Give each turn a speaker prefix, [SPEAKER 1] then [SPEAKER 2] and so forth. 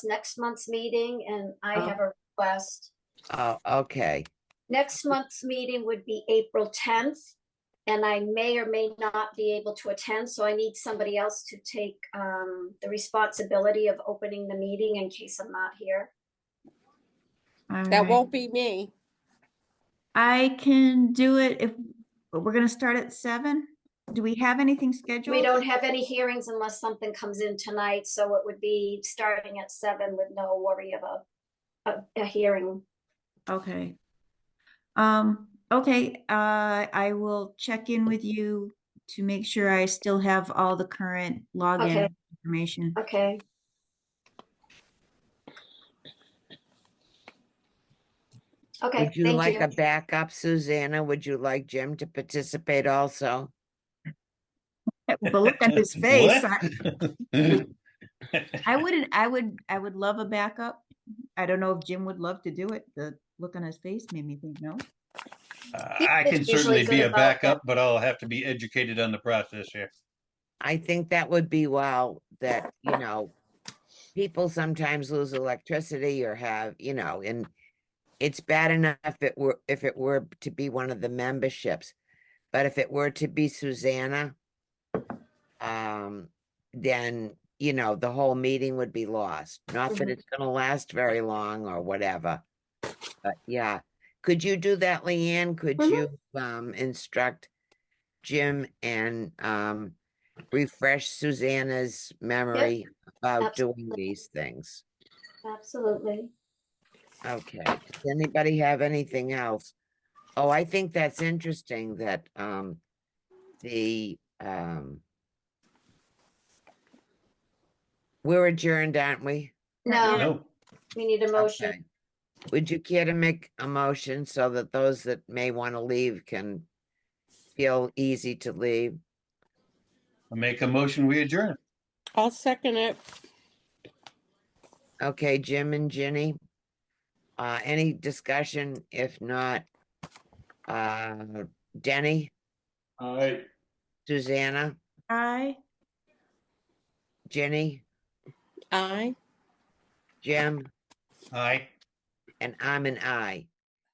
[SPEAKER 1] next month's meeting and I
[SPEAKER 2] Oh.
[SPEAKER 1] have a request.
[SPEAKER 2] Oh, okay.
[SPEAKER 1] Next month's meeting would be April tenth. And I may or may not be able to attend, so I need somebody else to take um the responsibility of opening the meeting in case I'm not here.
[SPEAKER 3] All
[SPEAKER 4] That
[SPEAKER 3] right.
[SPEAKER 4] won't be me.
[SPEAKER 3] I can do it if, but we're gonna start at seven. Do we have anything scheduled?
[SPEAKER 1] We don't have any hearings unless something comes in tonight, so it would be starting at seven with no worry of a, a, a hearing.
[SPEAKER 3] Okay. Um, okay, uh, I will check in with you to make sure I still have all the current
[SPEAKER 1] Okay.
[SPEAKER 3] login information.
[SPEAKER 1] Okay, okay,
[SPEAKER 2] Would you like a
[SPEAKER 1] thank you.
[SPEAKER 2] backup, Susanna? Would you like Jim to participate also?
[SPEAKER 3] But look at his face. I-
[SPEAKER 5] What?
[SPEAKER 3] I wouldn't, I would, I would love a backup. I don't know if Jim would love to do it. The look on his face made me think no.
[SPEAKER 5] Uh,
[SPEAKER 1] He's
[SPEAKER 5] I can
[SPEAKER 1] usually
[SPEAKER 5] certainly
[SPEAKER 1] good
[SPEAKER 5] be a
[SPEAKER 1] about that.
[SPEAKER 5] backup, but I'll have to be educated on the process here.
[SPEAKER 2] I think that would be wow, that, you know, people sometimes lose electricity or have, you know, and it's bad enough if it were, if it were to be one of the memberships. But if it were to be Susanna, um, then, you know, the whole meeting would be lost. Not that
[SPEAKER 1] Mhm.
[SPEAKER 2] it's gonna last very long or whatever. But yeah, could you do that, Leanne? Could you,
[SPEAKER 1] Mhm.
[SPEAKER 2] um, instruct Jim and, um, refresh Susanna's memory about doing
[SPEAKER 1] absolutely.
[SPEAKER 2] these things.
[SPEAKER 1] Absolutely.
[SPEAKER 2] Okay, does anybody have anything else? Oh, I think that's interesting that, um, the, um, we're adjourned, aren't we?
[SPEAKER 1] No,
[SPEAKER 5] No,
[SPEAKER 1] we need a motion.
[SPEAKER 2] Okay. Would you care to make a motion so that those that may want to leave can feel easy to leave?
[SPEAKER 5] make a motion, we adjourn.
[SPEAKER 4] I'll second it.
[SPEAKER 2] Okay, Jim and Ginny. Uh, any discussion? If not, uh, Denny,
[SPEAKER 5] All right.
[SPEAKER 2] Susanna,
[SPEAKER 3] I,
[SPEAKER 2] Ginny,
[SPEAKER 4] Aye.
[SPEAKER 2] Jim,
[SPEAKER 5] Aye.
[SPEAKER 2] and I'm an I.